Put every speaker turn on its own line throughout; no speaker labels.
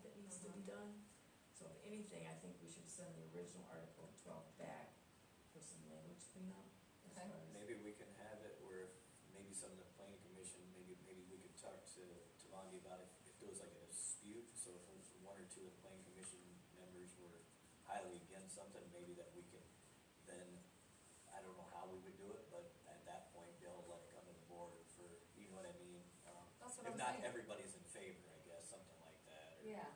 been done. So if anything, I think we should send the original Article twelve back for some language cleanup as
Okay.
far as.
Maybe we can have it where if maybe some of the planning commission, maybe, maybe we could talk to, to Longy about if, if there was like a dispute, so if one or two of the planning commission members were highly against something, maybe that we can then, I don't know how we would do it, but at that point, they'll let it come to the board for, you know what I mean? Um,
That's what I'm
If
saying.
not everybody's in favor, I guess, something like that, or, you
Yeah,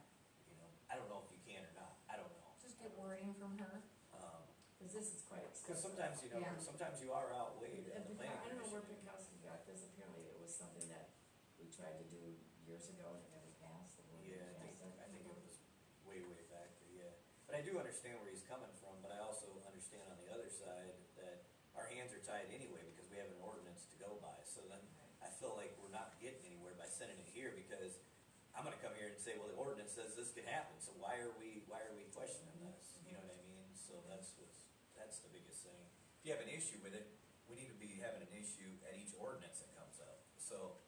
know, I don't know if you can or not, I don't know.
just get wording from her.
Um,
Cause this is quite
cause
extensive.
sometimes, you know,
Yeah.
sometimes you are outweighed
At
in the
the-
planning
I don't know where
commission.
Pinkowski got this, apparently it was something that we tried to do years ago and it never passed. the board
Yeah, I think,
passed it.
I think it was way, way back, there, yeah. But I do understand where he's coming from, but I also understand on the other side that our hands are tied anyway because we have an ordinance to go by. So then I feel like we're not getting anywhere by sending it here because I'm gonna come here and say, well, the ordinance says this could happen, so why are we, why are we questioning this? You know what I mean? So that's what's, that's the biggest thing. If you have an issue with it, we need to be having an issue at each ordinance that comes up. So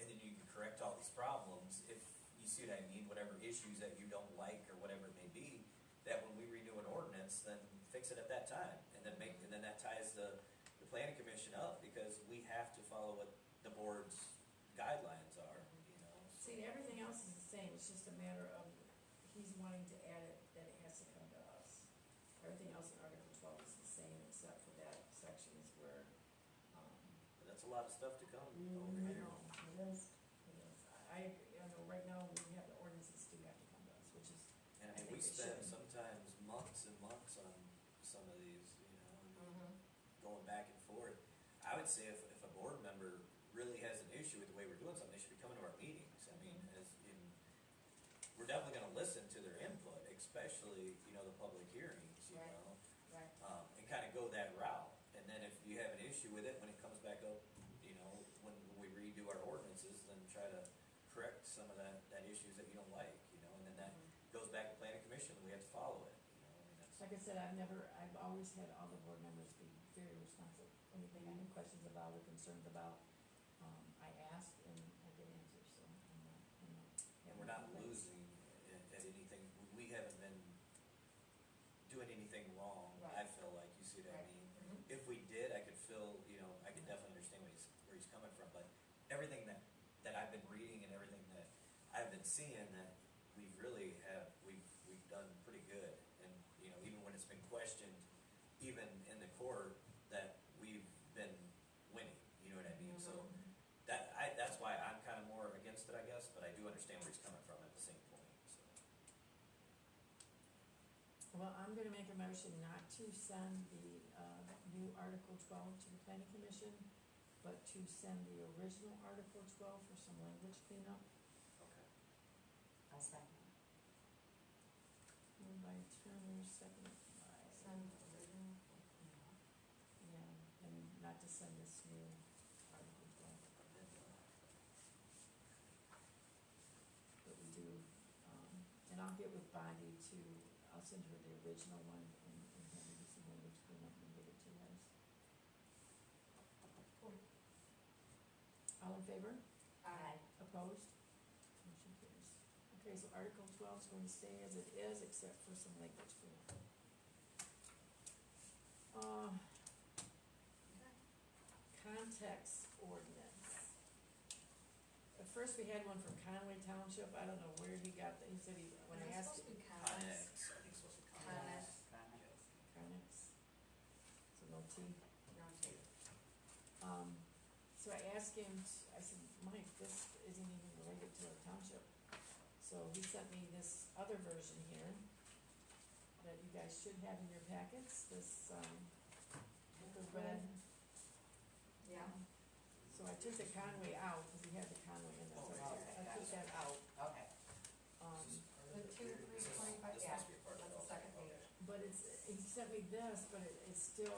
and then you can correct all these problems if you see what I mean, whatever issues that you don't like or whatever it may be, that when we renew an ordinance, then fix it at that time, and then make, and then that ties the, the planning commission up, because we have to follow what the board's guidelines are, you know?
See, everything else is the same, it's just a matter of, he's wanting to add it, that it has to come to us. Everything else in Article twelve is the same, except for that section is where, um,
But that's a lot of stuff to come over
Mm-hmm. I
here.
know, it is, it is. I, I, agree. I know, right now, we have the ordinances do have to come to us, which is, I
And I mean,
think
we
it
spend
should.
sometimes months and months on some of these, you know, and going back and forth. I would say if, if a board member really has an issue with the way we're doing something, they should be coming to our meetings. I mean, as in, we're definitely gonna listen to their input, especially, you know, the public hearings, you
Right.
know?
Right.
Um, and kinda go that route. And then if you have an issue with it, when it comes back up, you know, when we redo our ordinances, then try to correct some of that, that issues that you don't like, you know? And then that
Mm-hmm.
goes back to planning commission, and we have to follow it, you know? I mean, that's-
like I said, I've never, I've always had all the board members be very responsive. Anything I have questions about or concerns about, um, I ask and I get answers, so, I'm not, you know.
And we're not losing at, at anything, we haven't been doing anything wrong, I
Right.
feel like, you see what I
Right. Mm-hmm.
mean? If we did, I could feel, you know, I could definitely understand where he's, where he's coming from, but everything that, that I've been reading and everything that I've been seeing, that we really have, we've, we've done pretty good. And, you know, even when it's been questioned, even in the court, that we've been winning, you know what I mean? So
Mm-hmm.
that, I, that's why I'm kind of more against it, I guess, but I do understand where he's coming from at the same point, so.
Well, I'm gonna make a motion not to send the, uh, new Article twelve to the planning commission, but to send the original Article twelve for some language cleanup.
Okay.
I'll second.
Moved by Turner, second by. Yeah, and not to send this new Article twelve,
uh,
but we do, um, and I'll get with Bonnie to, I'll send her the original one and, and have her do some language cleanup and give it to us.
Cool.
All in favor?
Aye.
Opposed? Motion carries. Okay, so Article twelve is going to stay as it is, except for some language cleanup. Uh, context ordinance. At first, we had one from Conway Township, I don't know where he got that, he said he, when I asked him.
Uh,
Connex, I think it's supposed to be Connex.
Connex.
Yeah.
Connex. So no T.
No, two.
Um, so I asked him, t- I said, Mike, this isn't even related to our township. So he sent me this other version here that you guys should have in your packets, this, um, the red.
Yeah.
So I took the Conway out, cause he had the Conway in there,
Oh,
so I I took that out.
Okay,
Um,
Is this part
The
of it?
two,
Here,
three,
this is-
25
This
yeah,
must be a part of
that's
it.
the
okay,
second
okay.
page.
but it's, he sent me this, but it, it's still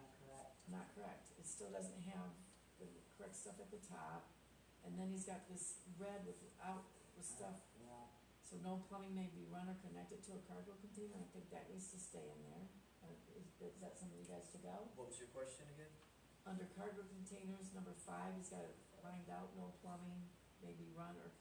not correct.
not correct. It still doesn't have the correct stuff at the top. And then he's got this red without, with stuff
Yeah,
So no plumbing may be run or connected to a cargo container, I think that needs to stay in there. Uh, is, is that something you guys took out?
What was your question again?
Under cargo containers, number five, he's gotta find out no plumbing may be run or